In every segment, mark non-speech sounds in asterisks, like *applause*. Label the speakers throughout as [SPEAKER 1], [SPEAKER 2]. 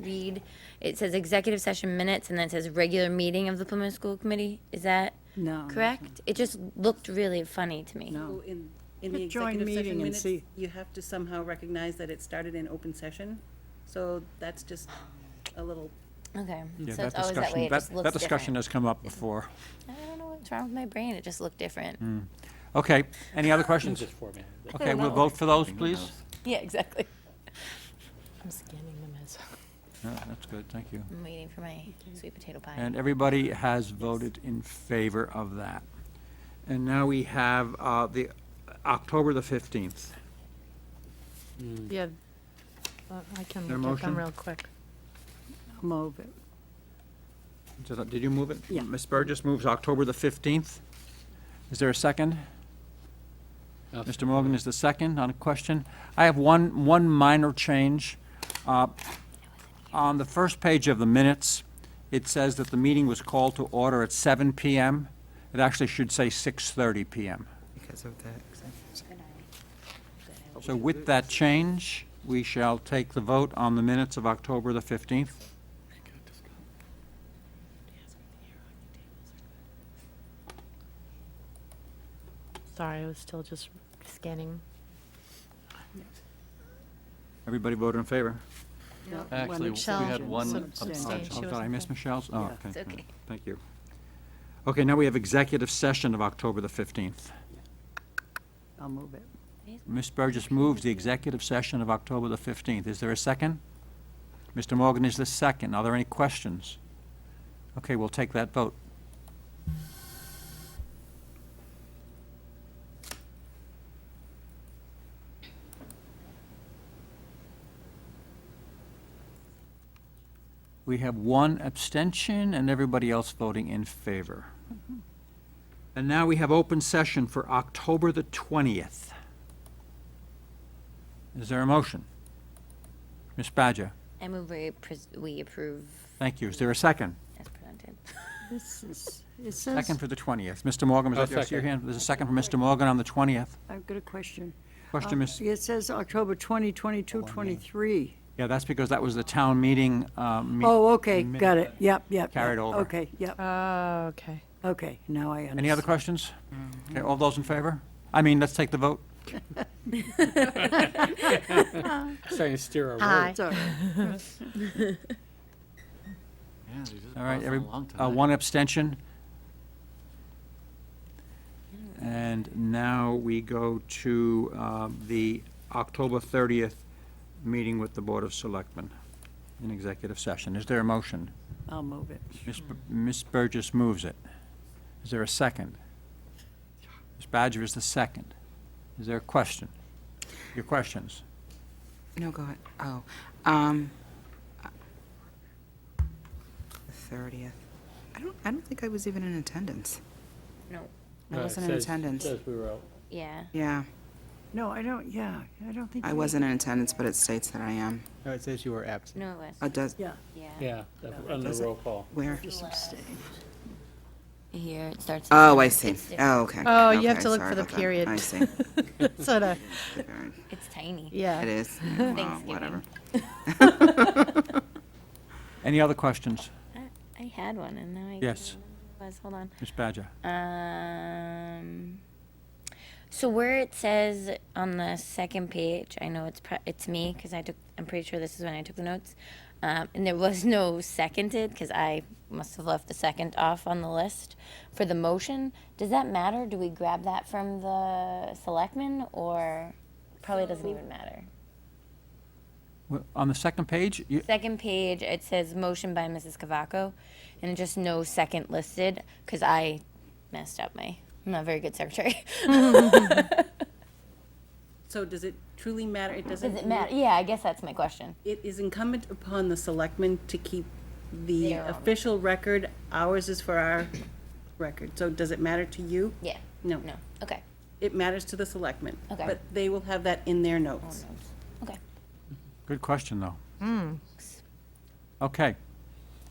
[SPEAKER 1] read, it says executive session minutes and then it says regular meeting of the Plymouth School Committee. Is that
[SPEAKER 2] No, no,
[SPEAKER 1] correct? It just looked really funny to me.
[SPEAKER 2] No.
[SPEAKER 3] So In, in the
[SPEAKER 2] But join
[SPEAKER 3] executive
[SPEAKER 2] meeting
[SPEAKER 3] session
[SPEAKER 2] and
[SPEAKER 3] minutes,
[SPEAKER 2] see.
[SPEAKER 3] you have to somehow recognize that it started in open session. So that's just a little,
[SPEAKER 1] Okay.
[SPEAKER 4] Yeah,
[SPEAKER 1] So
[SPEAKER 4] that
[SPEAKER 1] it's always that
[SPEAKER 4] discussion-
[SPEAKER 1] way. It just looks
[SPEAKER 4] That discussion
[SPEAKER 1] different.
[SPEAKER 4] has come up before.
[SPEAKER 1] I don't know what's wrong with my brain. It just looked different.
[SPEAKER 4] Hmm. Okay, any other questions?
[SPEAKER 5] *laughs*
[SPEAKER 4] Okay, we'll vote for those, please.
[SPEAKER 1] *laughs* Yeah, exactly.
[SPEAKER 6] I'm scanning them as.
[SPEAKER 4] No, That's good, thank you.
[SPEAKER 1] I'm waiting for my sweet potato pie.
[SPEAKER 4] And everybody has voted in favor of that. And now we have uh, the October the 15th.
[SPEAKER 6] Yeah. Well, Uh, I can
[SPEAKER 4] There a
[SPEAKER 6] look at them
[SPEAKER 4] motion?
[SPEAKER 6] real quick.
[SPEAKER 2] I'll move it.
[SPEAKER 4] Does that- Did you move it?
[SPEAKER 2] Yeah.
[SPEAKER 4] Ms. Burgess moves October the 15th. Is there a second?
[SPEAKER 5] Uh,
[SPEAKER 4] Mr. Morgan is the second on a question. I have one, one minor change. Uh, On the first page of the minutes, it says that the meeting was called to order at 7 PM. It actually should say 6:30 PM.
[SPEAKER 7] because of the executive session.
[SPEAKER 4] So with that change, we shall take the vote on the minutes of October the 15th.
[SPEAKER 6] Sorry, I was still just scanning.
[SPEAKER 4] Everybody voted in favor?
[SPEAKER 2] Yeah, one
[SPEAKER 5] Actually, we had
[SPEAKER 2] abstention.
[SPEAKER 5] one
[SPEAKER 6] Some
[SPEAKER 5] abstention.
[SPEAKER 4] Oh,
[SPEAKER 6] abstain.
[SPEAKER 4] I'm
[SPEAKER 6] She
[SPEAKER 4] sorry, I
[SPEAKER 6] wasn't
[SPEAKER 4] missed
[SPEAKER 6] there.
[SPEAKER 4] Michelle's? Oh,
[SPEAKER 2] Yeah.
[SPEAKER 4] okay.
[SPEAKER 1] It's okay.
[SPEAKER 4] Thank you. Okay, now we have executive session of October the 15th.
[SPEAKER 2] I'll move it.
[SPEAKER 4] Ms. Burgess moves the executive session of October the 15th. Is there a second? Mr. Morgan is the second. Are there any questions? Okay, we'll take that vote. We have one abstention and everybody else voting in favor. And now we have open session for October the 20th. Is there a motion? Ms. Badger,
[SPEAKER 1] I move we, pres- we approve
[SPEAKER 4] thank you. Is there a second?
[SPEAKER 1] as presented.
[SPEAKER 2] This is, it says,
[SPEAKER 4] Second for the 20th. Mr. Morgan,
[SPEAKER 5] Oh,
[SPEAKER 4] was that your- your
[SPEAKER 5] second.
[SPEAKER 4] hand? There's a second for Mr. Morgan on the 20th.
[SPEAKER 2] I've got a question.
[SPEAKER 4] Question,
[SPEAKER 2] Uh,
[SPEAKER 4] Ms.,
[SPEAKER 2] It says October 2022, 23.
[SPEAKER 4] yeah, that's because that was the town meeting. um, me-
[SPEAKER 2] Um, Oh, okay,
[SPEAKER 4] minute
[SPEAKER 2] got it. Yep, yep.
[SPEAKER 4] Carried
[SPEAKER 2] yep.
[SPEAKER 4] over.
[SPEAKER 2] Okay, yep,
[SPEAKER 6] Oh, okay.
[SPEAKER 2] okay, now I understand.
[SPEAKER 4] Any other questions? Okay, all those in favor? I mean, let's take the vote.
[SPEAKER 5] Trying to steer our
[SPEAKER 6] Aye.
[SPEAKER 2] It's all
[SPEAKER 5] *laughs*
[SPEAKER 2] right.
[SPEAKER 4] All right, every, uh, one abstention. And now we go to uh, the October 30th meeting with the Board of Selectmen in executive session. Is there a motion?
[SPEAKER 2] I'll move it.
[SPEAKER 4] Ms. B- Ms. Burgess moves it. Is there a second? Ms. Badger is the second. Is there a question? Your questions?
[SPEAKER 7] No, go ahead. Oh, um, the thirtieth. I don't, I don't think I was even in attendance.
[SPEAKER 1] No,
[SPEAKER 7] I wasn't in attendance.
[SPEAKER 5] Says we were out.
[SPEAKER 1] yeah.
[SPEAKER 7] Yeah,
[SPEAKER 2] No, I don't, yeah, I don't think.
[SPEAKER 7] I
[SPEAKER 2] we-
[SPEAKER 7] wasn't in attendance, but it states that I am.
[SPEAKER 8] No, it says you were absent.
[SPEAKER 1] No, it
[SPEAKER 7] Oh,
[SPEAKER 1] was.
[SPEAKER 7] does,
[SPEAKER 2] Yeah,
[SPEAKER 1] Yeah.
[SPEAKER 5] Yeah, under
[SPEAKER 7] Does it-
[SPEAKER 5] roll call.
[SPEAKER 7] where?
[SPEAKER 2] just abstain.
[SPEAKER 1] Here it starts.
[SPEAKER 7] Oh, I see.
[SPEAKER 1] It's different.
[SPEAKER 7] Oh, okay.
[SPEAKER 6] Oh, you have
[SPEAKER 7] Okay,
[SPEAKER 6] to look
[SPEAKER 7] sorry
[SPEAKER 6] for the
[SPEAKER 7] about that.
[SPEAKER 6] period. *laughs*
[SPEAKER 7] I see.
[SPEAKER 6] Sort of,
[SPEAKER 1] It's tiny.
[SPEAKER 6] yeah.
[SPEAKER 7] It is. Wow,
[SPEAKER 1] Thanksgiving.
[SPEAKER 7] Whatever.
[SPEAKER 6] *laughs*
[SPEAKER 7] *laughs*
[SPEAKER 4] Any other questions?
[SPEAKER 1] I- I had one and now I. can't remember
[SPEAKER 4] Yes.
[SPEAKER 1] what it Was, hold on.
[SPEAKER 4] Ms. Badger?
[SPEAKER 1] Um, so where it says on the second page, I know it's pre- it's me because I took. I'm pretty sure this is when I took the notes, um, and there was no seconded because I must have left the second off on the list for the motion. Does that matter? Do we grab that from the selectmen or probably doesn't even matter?
[SPEAKER 4] Wh- On the second page, you-
[SPEAKER 1] Second page, it says motion by Mrs. Cavaco, and just no second listed because I messed up my. I'm not a very good secretary. *laughs*
[SPEAKER 3] so does it truly matter? It doesn't.
[SPEAKER 1] Does it matter? Yeah, I guess that's my question.
[SPEAKER 3] It is incumbent upon the selectmen to keep the
[SPEAKER 1] Their own.
[SPEAKER 3] official record. Ours is for our record. So does it matter to you?
[SPEAKER 1] Yeah.
[SPEAKER 3] No.
[SPEAKER 1] No. Okay.
[SPEAKER 3] It matters to the selectmen.
[SPEAKER 1] Okay.
[SPEAKER 3] But they will have that in their notes.
[SPEAKER 1] Okay.
[SPEAKER 4] good question, though. Okay,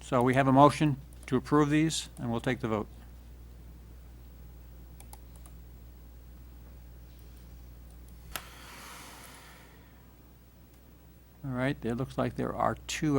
[SPEAKER 4] so we have a motion to approve these, and we'll take the vote. All right, it looks like there are two